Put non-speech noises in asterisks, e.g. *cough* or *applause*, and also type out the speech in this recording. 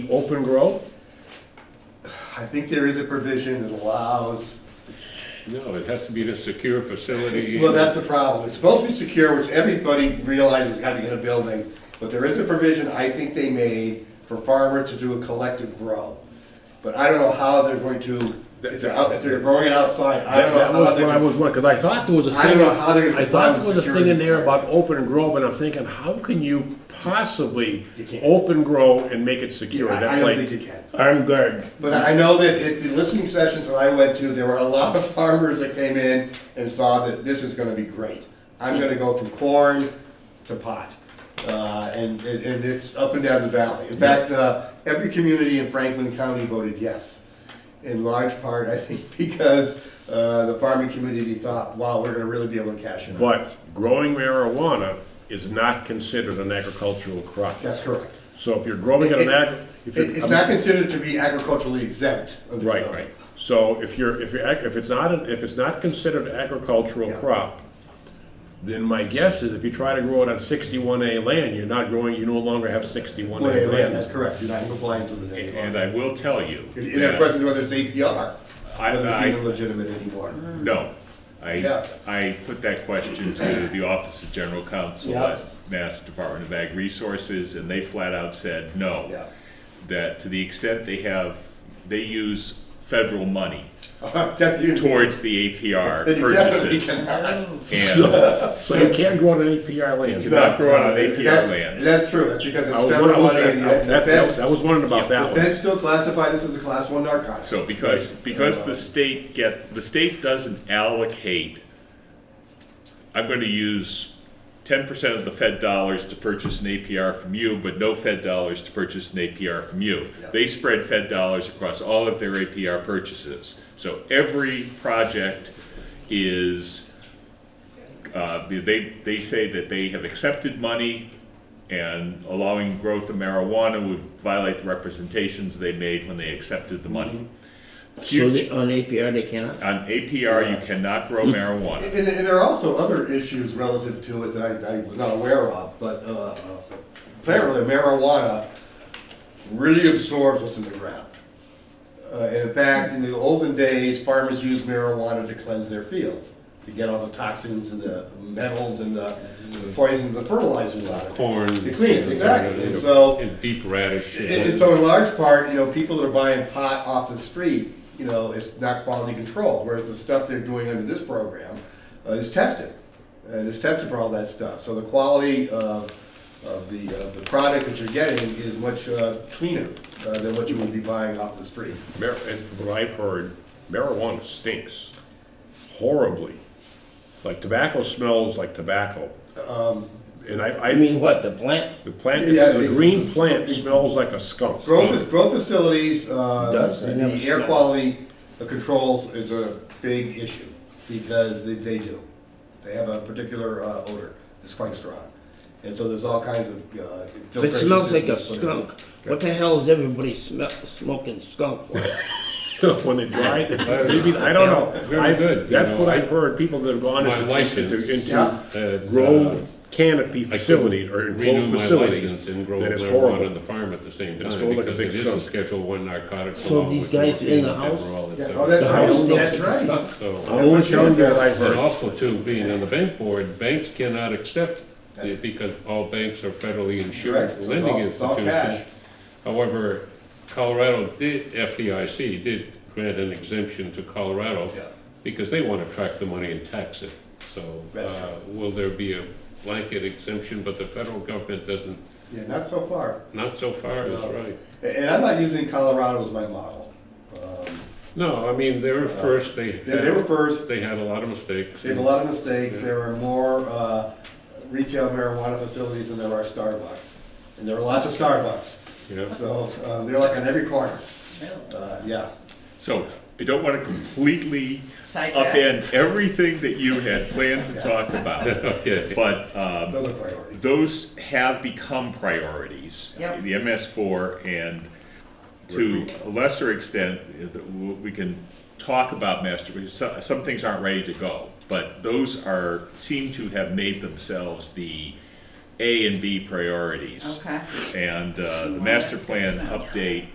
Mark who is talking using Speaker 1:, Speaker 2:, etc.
Speaker 1: open grow?
Speaker 2: I think there is a provision that allows,
Speaker 3: No, it has to be in a secure facility.
Speaker 2: well, that's the problem. It's supposed to be secure, which everybody realizes has got to be in a building, but there is a provision I think they made for farmer to do a collective grow. But I don't know how they're going to, if they're, out- if they're growing it outside, I
Speaker 1: That
Speaker 2: don't know
Speaker 1: that
Speaker 2: how
Speaker 1: was
Speaker 2: they're.
Speaker 1: what I
Speaker 2: gonna-
Speaker 1: was, because I thought there was a
Speaker 2: I don't
Speaker 1: thing,
Speaker 2: know how they're gonna
Speaker 1: I thought
Speaker 2: comply
Speaker 1: there
Speaker 2: with
Speaker 1: was a thing in there about
Speaker 2: security
Speaker 1: open grow, but I'm thinking, how can you possibly
Speaker 2: You can't.
Speaker 1: open grow and make it secure?
Speaker 2: I- I
Speaker 1: That's
Speaker 2: don't think
Speaker 1: like,
Speaker 2: you can.
Speaker 1: armed guard.
Speaker 2: But I know that at the listening sessions that I went to, there were a lot of farmers that came in and saw that this is gonna be great. I'm gonna go from corn to pot. Uh, and, and and it's up and down the valley. In fact, uh, every community in Franklin County voted yes. In large part, *laughs* I think, because, uh, the farming community thought, wow, we're gonna really be able to cash in on
Speaker 1: But
Speaker 2: this.
Speaker 1: growing marijuana is not considered an agricultural crop.
Speaker 2: That's correct.
Speaker 1: So if you're growing it
Speaker 2: It-
Speaker 1: in ag, if you're.
Speaker 2: It- it's not considered to be agriculturally exempt under
Speaker 1: Right,
Speaker 2: zoning.
Speaker 1: right. So if you're, if you're, ag- if it's not, an- if it's not considered agricultural
Speaker 2: Yeah.
Speaker 1: crop, then my guess is if you try to grow it on sixty-one A land, you're not growing, you no longer have sixty-one
Speaker 2: Well,
Speaker 1: A
Speaker 2: yeah, that's
Speaker 1: land.
Speaker 2: correct. You're not in compliance with the zoning.
Speaker 3: And and I will tell you.
Speaker 2: And that question is whether it's APR,
Speaker 3: I-
Speaker 2: whether it's
Speaker 3: I-
Speaker 2: even legitimate anymore.
Speaker 1: Mm-hmm.
Speaker 3: No,
Speaker 2: Yeah.
Speaker 3: I, I put that question to the Office of General Counsel
Speaker 2: Yeah.
Speaker 3: at Mass Department of Ag Resources, and they flat out said no.
Speaker 2: Yeah.
Speaker 3: That to the extent they have, they use federal money
Speaker 2: That's you.
Speaker 3: towards the APR
Speaker 2: Then you definitely
Speaker 3: purchases.
Speaker 2: cannot.
Speaker 3: And
Speaker 1: So you can't grow it on APR
Speaker 3: you
Speaker 1: land.
Speaker 3: cannot grow on an APR
Speaker 2: That's-
Speaker 3: land.
Speaker 2: That's true, that's because it's
Speaker 1: I was wondering, I
Speaker 2: federal
Speaker 1: was-
Speaker 2: money and the-
Speaker 1: that-
Speaker 2: the
Speaker 1: that-
Speaker 2: feds,
Speaker 1: that was wondering about
Speaker 2: the
Speaker 1: that one.
Speaker 2: feds still classify this as a class one narcotic.
Speaker 3: So because, because the state get, the state doesn't allocate, I'm gonna use ten percent of the Fed dollars to purchase an APR from you, but no Fed dollars to purchase an APR from you.
Speaker 2: Yeah.
Speaker 3: They spread Fed dollars across all of their APR purchases. So every project is, uh, they, they say that they have accepted money and allowing growth of marijuana would violate the representations they made when they accepted the money.
Speaker 4: So they, on APR, they cannot?
Speaker 3: On APR, you cannot grow marijuana.
Speaker 2: And, and there are also other issues relative to it that I, I was not aware of, but, uh, apparently marijuana really absorbs what's in the ground. Uh, and in fact, in the olden days, farmers used marijuana to cleanse their fields, to get all the toxins and the metals and the poisons, the fertilizers out of it.
Speaker 5: corn.
Speaker 2: To clean it, exactly, and so.
Speaker 5: And deep radish.
Speaker 2: And, and so in large part, you know, people that are buying pot off the street, you know, it's not quality control, whereas the stuff they're doing under this program uh, is tested. And it's tested for all that stuff, so the quality of, of the, of the product that you're getting is much uh, cleaner uh, than what you would be buying off the street.
Speaker 1: Mar- And what I've heard, marijuana stinks horribly. Like tobacco smells like tobacco. And I,
Speaker 4: I
Speaker 1: I,
Speaker 4: mean, what, the plant?
Speaker 1: the plant,
Speaker 2: Yeah,
Speaker 1: the
Speaker 2: the-
Speaker 1: green plant smells like a skunk.
Speaker 2: Growth, grow facilities, uh,
Speaker 4: Does, I never
Speaker 2: the air
Speaker 4: smelled it.
Speaker 2: quality controls is a big issue, because they, they do. They have a particular uh, odor, that's quite strong, and so there's all kinds of. uh,
Speaker 4: If it
Speaker 2: filtration
Speaker 4: smells like a
Speaker 2: systems put in.
Speaker 4: skunk, what the hell is everybody smel- smoking skunk for?
Speaker 1: *laughs* when they dried, maybe, I don't know.
Speaker 5: Very
Speaker 1: I-
Speaker 5: good, you
Speaker 1: That's
Speaker 5: know,
Speaker 1: what
Speaker 5: I-
Speaker 1: I've heard, people that have gone
Speaker 5: My
Speaker 1: into,
Speaker 5: license.
Speaker 1: into-
Speaker 2: Yeah.
Speaker 1: into
Speaker 5: And, uh,
Speaker 1: grow canopy
Speaker 5: I couldn't
Speaker 1: facilities or
Speaker 5: renew
Speaker 1: enclosed
Speaker 5: my
Speaker 1: facilities,
Speaker 5: license And grow
Speaker 1: that is
Speaker 5: marijuana on
Speaker 1: horrible.
Speaker 5: the farm at the same
Speaker 1: It's
Speaker 5: time,
Speaker 1: going like a
Speaker 5: because
Speaker 1: big
Speaker 5: it is a
Speaker 1: skunk.
Speaker 5: Schedule One narcotic.
Speaker 4: So
Speaker 5: along
Speaker 4: these
Speaker 5: with
Speaker 4: guys
Speaker 5: morphine,
Speaker 4: in the
Speaker 5: pepper,
Speaker 4: house?
Speaker 5: all that
Speaker 2: Yeah,
Speaker 5: stuff.
Speaker 2: oh, that's
Speaker 4: The house
Speaker 2: right, that's
Speaker 4: stinks.
Speaker 2: right.
Speaker 5: So-
Speaker 1: I was younger, and I've
Speaker 5: And
Speaker 1: heard,
Speaker 5: also too, being on the bank board, banks cannot accept it because all banks are federally insured
Speaker 2: Correct. So it's all-
Speaker 5: lending
Speaker 2: it's all cash.
Speaker 5: institutions. However, Colorado did, FDIC did grant an exemption to Colorado
Speaker 2: Yeah.
Speaker 5: because they want to track the money and tax it. So,
Speaker 2: That's
Speaker 5: uh, will there be a blanket exemption, but the federal government doesn't,
Speaker 2: Yeah, not so far,
Speaker 5: not so far is right.
Speaker 2: A- and I'm not using Colorado as my model. Um,
Speaker 5: No, I mean, they were first, they
Speaker 2: They they were
Speaker 5: had,
Speaker 2: first,
Speaker 5: they had a lot of mistakes.
Speaker 2: They have a lot of mistakes, there are more uh, retail marijuana facilities than there are Starbucks. And there are lots of Starbucks,
Speaker 5: Yeah.
Speaker 2: so uh, they're like on every corner. Uh, Yeah,
Speaker 3: So I don't want to completely
Speaker 6: Sidetrack.
Speaker 3: upend everything that you had planned to talk
Speaker 5: *laughs*
Speaker 3: about,
Speaker 5: Okay.
Speaker 3: but, um,
Speaker 2: those are priorities.
Speaker 3: those have become priorities.
Speaker 6: Yep.
Speaker 3: The MS4 and to a lesser extent, uh, the- w- we can talk about master, because so- some things aren't ready to go, but those are, seem to have made themselves the A and B priorities.
Speaker 6: Okay.
Speaker 3: And uh, the master plan update